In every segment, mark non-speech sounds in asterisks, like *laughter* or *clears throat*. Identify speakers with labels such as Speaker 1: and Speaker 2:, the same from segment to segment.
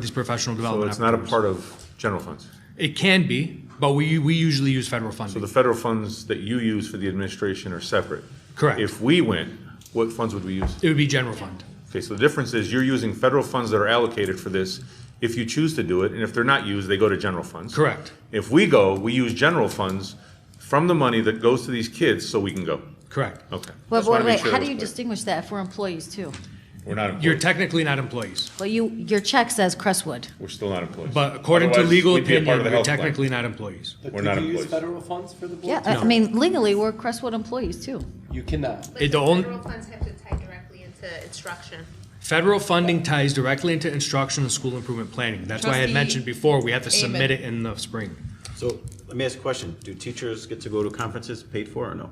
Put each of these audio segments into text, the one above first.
Speaker 1: these professional
Speaker 2: So
Speaker 1: development
Speaker 2: it's not a
Speaker 1: opportunities.
Speaker 2: part of general funds.
Speaker 1: It can be, but we, we usually use federal
Speaker 2: So
Speaker 1: funding.
Speaker 2: the federal funds that you use for the administration are separate.
Speaker 1: Correct.
Speaker 2: If we went, what funds would we use?
Speaker 1: It would be general fund.
Speaker 2: Okay, so the difference is you're using federal funds that are allocated for this if you choose to do it, and if they're not used, they go to general funds.
Speaker 1: Correct,
Speaker 2: If we go, we use general funds from the money that goes to these kids so we can go.
Speaker 1: correct.
Speaker 2: Okay.
Speaker 3: Well,
Speaker 2: Just wanna
Speaker 3: but
Speaker 2: make
Speaker 3: wait,
Speaker 2: sure
Speaker 3: how
Speaker 2: that
Speaker 3: do you
Speaker 2: was
Speaker 3: distinguish that if we're employees too?
Speaker 2: clear. We're not
Speaker 1: You're
Speaker 2: employees.
Speaker 1: technically not employees,
Speaker 3: Well, you, your check says Crestwood.
Speaker 2: We're still not employees.
Speaker 1: but according to
Speaker 2: Otherwise,
Speaker 1: legal
Speaker 2: we'd be a part
Speaker 1: opinion,
Speaker 2: of the
Speaker 1: we're
Speaker 2: health plan.
Speaker 1: technically not employees.
Speaker 4: But
Speaker 2: We're not
Speaker 4: Could you use
Speaker 2: employees.
Speaker 4: federal funds for the
Speaker 3: Yeah, uh,
Speaker 4: board?
Speaker 3: I I mean legally, we're Crestwood employees too.
Speaker 4: You cannot.
Speaker 1: It
Speaker 5: But the
Speaker 1: don't-
Speaker 5: federal funds have to tie directly into instruction.
Speaker 1: Federal funding ties directly into instruction and school improvement planning. That's why I had
Speaker 6: Trustee
Speaker 1: mentioned before, we have to submit
Speaker 6: Amen.
Speaker 1: it in the spring.
Speaker 7: So let me ask a question. Do teachers get to go to conferences paid for or no?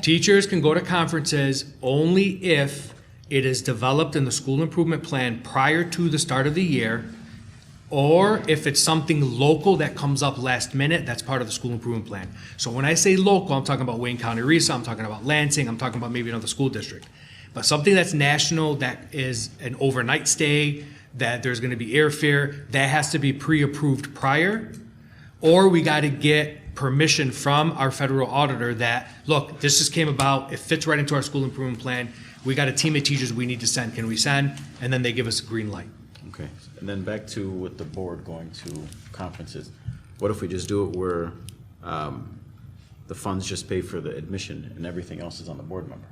Speaker 1: Teachers can go to conferences only if it is developed in the school improvement plan prior to the start of the year, or if it's something local that comes up last minute, that's part of the school improvement plan. So when I say local, I'm talking about Wayne County Resa, I'm talking about Lansing, I'm talking about maybe another school district. But something that's national, that is an overnight stay, that there's gonna be airfare, that has to be pre-approved prior or we got to get permission from our federal auditor that, look, this just came about, it fits right into our school improvement plan, we got a team of teachers we need to send, can we send? And then they give us a green light.
Speaker 7: Okay. And then back to with the board going to conferences. What if we just do it where um, the funds just pay for the admission and everything else is on the board member?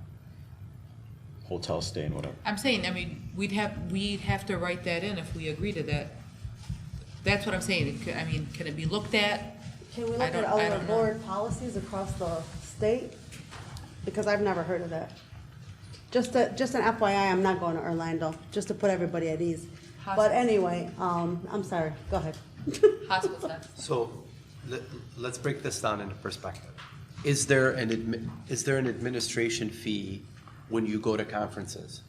Speaker 7: Hotel stay and whatever.
Speaker 6: I'm saying, I mean, we'd have, we'd have to write that in if we agree to that. That's what I'm saying, It could- I mean, can it be looked at?
Speaker 8: Can we
Speaker 6: I
Speaker 8: look at
Speaker 6: don't-
Speaker 8: all
Speaker 6: I
Speaker 8: our
Speaker 6: don't know.
Speaker 8: board policies across the state? Because I've never heard of that. Just a, just an FYI, I'm not going to Orlando, just to put everybody at ease. But
Speaker 6: Hospital.
Speaker 8: anyway, um, I'm sorry, go ahead.
Speaker 6: Hospital stuff.
Speaker 4: So let, let's break this down into perspective. Is there an admi, is there an administration fee when you go to conferences?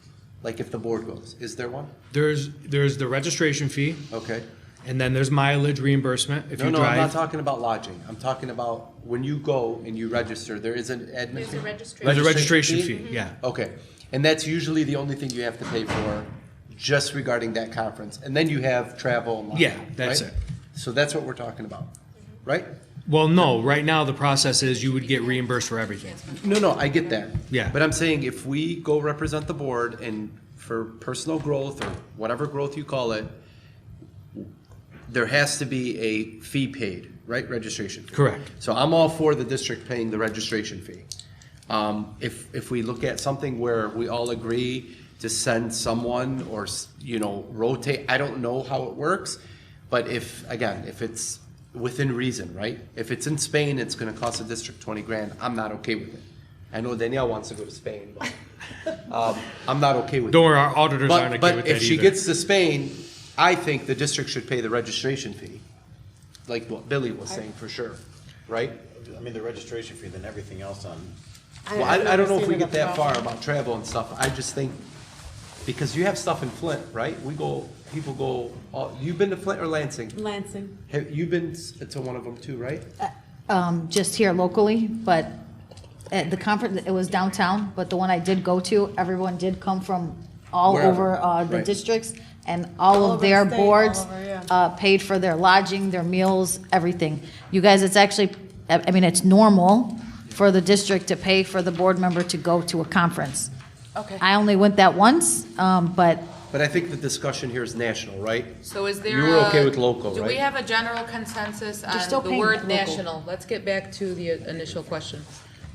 Speaker 4: Like if the board goes, is there one?
Speaker 1: There's, there's the registration fee,
Speaker 4: Okay.
Speaker 1: and then there's mileage reimbursement if
Speaker 4: No,
Speaker 1: you
Speaker 4: no, I'm not
Speaker 1: drive.
Speaker 4: talking about lodging. I'm talking about when you go and you register, there is an admin.
Speaker 5: There's a
Speaker 4: fee?
Speaker 5: registration.
Speaker 1: There's a registration fee, yeah.
Speaker 4: Okay, and that's usually the only thing you have to pay for, just regarding that conference, and then you have travel. and lodging,
Speaker 1: Yeah, that's
Speaker 4: right?
Speaker 1: it.
Speaker 4: So that's what we're talking about, right?
Speaker 1: Well, no, right now the process is you would get reimbursed for everything.
Speaker 4: No, no, I get that.
Speaker 1: Yeah.
Speaker 4: But I'm saying if we go represent the board and for personal growth or whatever growth you call it, there has to be a fee paid, right? Registration. fee.
Speaker 1: Correct.
Speaker 4: So I'm all for the district paying the registration fee. Um, if, if we look at something where we all agree to send someone or, s- you know, rotate, I don't know how it works. But if, again, if it's within reason, right? If it's in Spain, it's gonna cost the district twenty grand, I'm not okay with it. I know Danielle wants to go to Spain, but, *laughs* um, I'm not okay with it.
Speaker 1: Don't worry, our auditors aren't okay
Speaker 4: But,
Speaker 1: with
Speaker 4: but
Speaker 1: that either.
Speaker 4: if she gets to Spain, I think the district should pay the registration fee, like what Billy was saying for sure, right?
Speaker 7: I mean, the registration fee, then everything else on
Speaker 4: Well, I, I don't know if we
Speaker 8: I've never
Speaker 4: get that
Speaker 8: seen it
Speaker 4: far about travel and stuff, I just think, because you have stuff in Flint, right? We go, people go, all- you've been to Flint or Lansing?
Speaker 8: Lansing.
Speaker 4: Have, you've been s- to one of them too, right?
Speaker 3: um, just here locally, but at the conference, it was downtown, but the one I did go to, everyone did come from all
Speaker 4: Wherever,
Speaker 3: over uh, the
Speaker 4: right.
Speaker 3: districts, and all
Speaker 8: All
Speaker 3: of
Speaker 8: over the
Speaker 3: their
Speaker 8: state,
Speaker 3: boards
Speaker 8: all over, yeah.
Speaker 3: uh, paid for their lodging, their meals, everything. You guys, it's actually, I I mean, it's normal for the district to pay for the board member to go to a conference.
Speaker 6: Okay.
Speaker 3: I only went that once, um, but
Speaker 4: But I think the discussion here is national, right?
Speaker 6: So is there
Speaker 4: You were okay
Speaker 6: a-
Speaker 4: with local,
Speaker 6: Do we
Speaker 4: right?
Speaker 6: have a general consensus
Speaker 3: still
Speaker 6: on the
Speaker 3: paying
Speaker 6: word
Speaker 3: local.
Speaker 6: national? Let's get back to the initial question.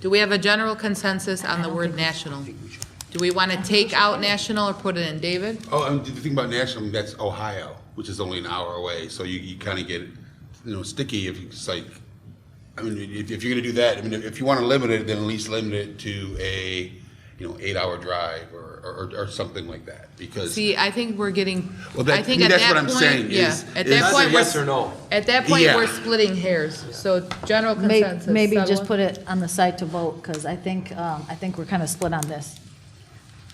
Speaker 6: Do we have a general consensus on the word national? Do we want to take out national or put it in David?
Speaker 9: Oh, and the thing about Nashville, that's Ohio, which is only an hour away, so you, you kind of get, you know, sticky if it's like, I mean, if, if you're gonna do that, I mean, if you want to limit it, then at least limit it to a, you know, eight-hour drive or, or, or something like that, because.
Speaker 6: See, I think we're getting,
Speaker 9: Well, that-
Speaker 6: I think
Speaker 9: to me,
Speaker 6: at
Speaker 9: that's
Speaker 6: that
Speaker 9: what I'm
Speaker 6: point,
Speaker 9: saying
Speaker 6: yeah,
Speaker 9: is- is-
Speaker 6: at that
Speaker 9: That's
Speaker 4: That's
Speaker 6: point,
Speaker 4: a
Speaker 6: we're,
Speaker 4: yes or no.
Speaker 6: at that point,
Speaker 9: Yeah.
Speaker 6: we're splitting hairs. So general
Speaker 3: may-
Speaker 6: consensus.
Speaker 3: maybe
Speaker 6: Settle
Speaker 3: just
Speaker 6: it.
Speaker 3: put it on the side to vote, because I think, um, I think we're kind of split on this.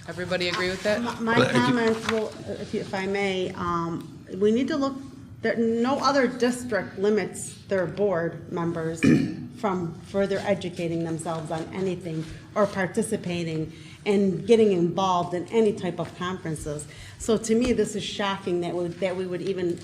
Speaker 6: Everybody agree with that?
Speaker 8: My- My
Speaker 9: But I ju-
Speaker 8: comments will, if you- if I may, um, we need to look There, no other district limits their
Speaker 9: *clears throat*
Speaker 8: board members from further educating themselves on anything or participating and getting involved in any type of conferences. So to me, this is shocking that we, that we would even